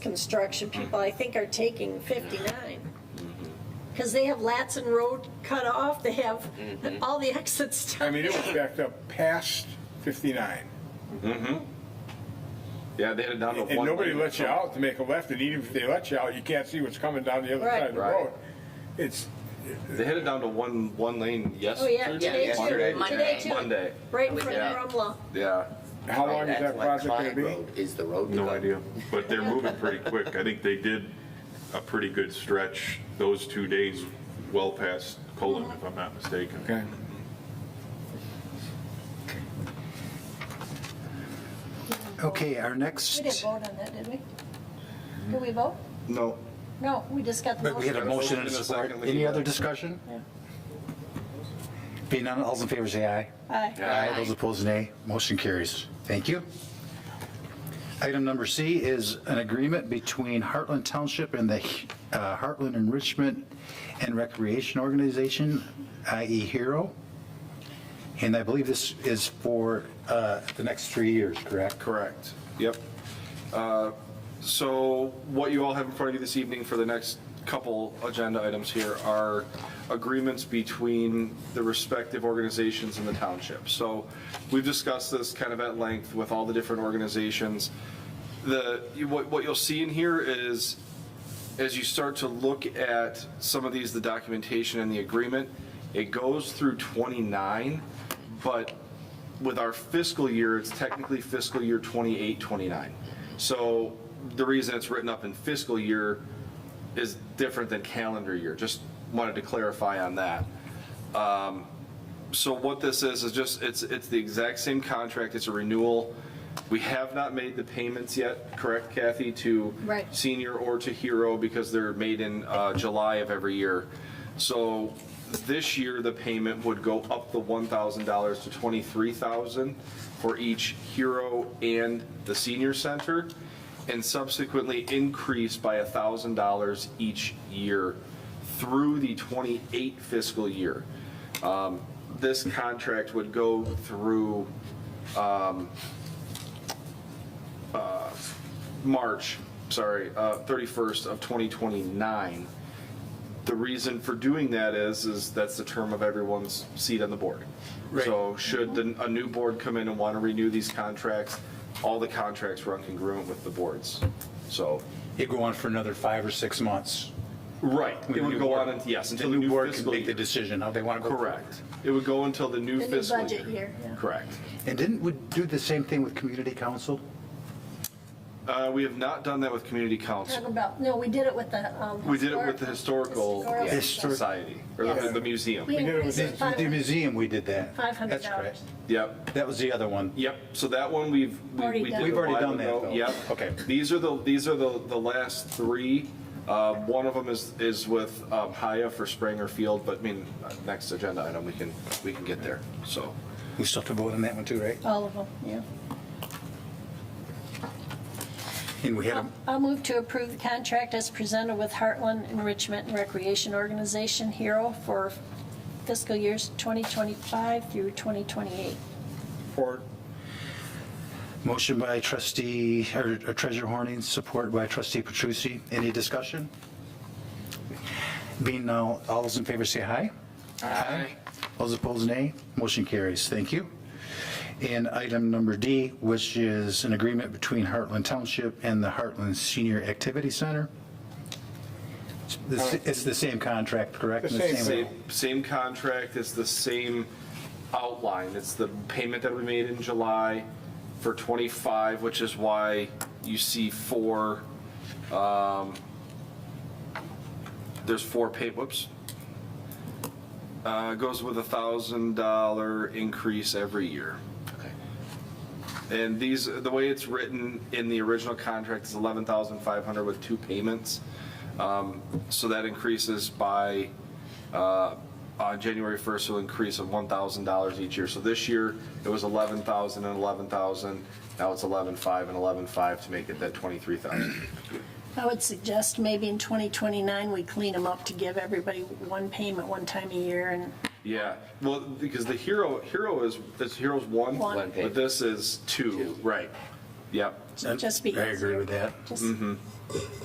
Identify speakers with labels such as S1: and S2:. S1: construction people, I think, are taking 59. Because they have Latson Road cut off, they have all the exits.
S2: I mean, it was backed up past 59.
S3: Yeah, they had it down to
S2: And
S3: one.
S2: nobody
S3: lane.
S2: lets you out to make a left, and even if they let you out, you can't see what's coming down the other
S1: Right.
S2: side of the
S3: Right.
S2: road. It's,
S3: They had it down to one one lane
S1: Oh,
S3: yesterday.
S1: yeah, today too,
S4: yesterday.
S1: today too.
S3: Monday.
S1: Right in front
S3: Yeah.
S1: of Rumla.
S3: Yeah.
S2: how long is
S4: That's
S2: that
S4: what
S2: project gonna
S4: Clyde
S2: be?
S4: Road Is the road. to
S5: No
S4: go.
S5: idea, but they're moving pretty quick. I think they did a pretty good stretch those two days, well past Colon, if I'm not mistaken.
S2: Okay.
S6: Okay, our
S1: We didn't
S6: next,
S1: vote on that, did we? Did we vote?
S3: No.
S1: No, we just got the
S6: but we had
S1: motion.
S6: a motion
S3: In
S6: and a
S3: a
S6: support.
S3: second, we
S6: Any
S3: can-
S6: other discussion? Being none, all's in favor, say aye.
S1: Aye.
S6: Aye. Those opposed, nay. Motion carries. Thank you. Item number C is an agreement between Heartland Township and the uh, Heartland Enrichment and Recreation Organization, i.e. HERO. And I believe this is for uh, the next three years, correct?
S3: Correct. Yep. Uh, So what you all have in front of you this evening for the next couple agenda items here are agreements between the respective organizations in the township. So we've discussed this kind of at length with all the different organizations. The, you- what what you'll see in here is as you start to look at some of these, the documentation and the agreement, it goes through 29, but with our fiscal year, it's technically fiscal year 28, 29. So the reason it's written up in fiscal year is different than calendar year. Just wanted to clarify on that. Um, So what this is, is just, it's, it's the exact same contract. It's a renewal. We have not made the payments yet, correct Kathy, to
S1: Right.
S3: senior or to hero because they're made in uh, July of every year. So this year, the payment would go up the $1,000 to $23,000 for each hero and the senior center, and subsequently increase by $1,000 each year through the 28 fiscal year. Um, This contract would go through um, uh, March, sorry, uh, 31st of 2029. The reason for doing that is, is that's the term of everyone's seat on the board. So should the- a new board come in and want to renew these contracts, all the contracts run congruent with the boards. So,
S6: It go on for another five or six months.
S3: right, it would go on, and- yes, until the new
S6: board can
S3: fiscal
S6: make the
S3: year.
S6: decision how they want to go. forward.
S3: Correct. It would go until the new
S1: The new
S3: fiscal year.
S1: budget year. yeah.
S3: Correct.
S6: And didn't we do the same thing with community council?
S3: Uh, We have not done that with community council.
S1: Talking about, no, we did it with the. um,
S3: We did it with the historical
S1: Historical
S3: yeah,
S1: Society.
S3: society, or the
S1: Yes.
S3: the museum.
S1: We
S2: did it with
S1: increased
S2: the-
S1: it
S2: with
S6: With the
S1: five
S6: museum, we did that.
S1: $500.
S6: That's correct.
S3: Yep.
S6: That was the other one.
S3: Yep, so that one we've, we-
S1: Already
S3: we
S1: done.
S3: did.
S6: We've
S3: a
S6: already
S3: while
S6: done that,
S3: ago.
S6: though.
S3: Yep.
S6: Okay.
S3: These are the, these are the, the last three. Uh, One of them is, is with um, Haya for Springer Field, but I mean, uh, next agenda item, we can, we can get there, so.
S6: We still have to vote on that one too, right?
S1: All of them, yeah.
S6: And we had, a-
S1: I'll move to approve the contract as presented with Heartland Enrichment and Recreation Organization, HERO, for fiscal years 2025 through 2028.
S2: Or
S6: motion by trustee, or or treasurer Horning, support by trustee Petrucci. Any discussion? Being now, all those in favor say aye. Aye. Those opposed, nay. Motion carries. Thank you. And item number D, which is an agreement between Heartland Township and the Heartland Senior Activity Center. It's the- It's the same contract, correct?
S2: Uh, The same.
S3: Same, same contract, it's the same outline, it's the payment that we made in July for 25, which is why you see four, um, there's four pay, whoops. Uh, Goes with a $1,000 increase every year. And these, the way it's written in the original contract is 11,500 with two payments. Um, So that increases by, uh, on January 1st, it'll increase of $1,000 each year. So this year, it was 11,000 and 11,000, now it's 11,500 and 11,500 to make it that 23,000.
S1: I would suggest maybe in 2029, we clean them up to give everybody one payment one time a year and
S3: Yeah, well, because the hero, hero is, this hero's one,
S1: One.
S4: One pay.
S3: but this is two, right. Yep,
S1: just be
S6: I
S1: easier.
S6: agree with that.
S1: Just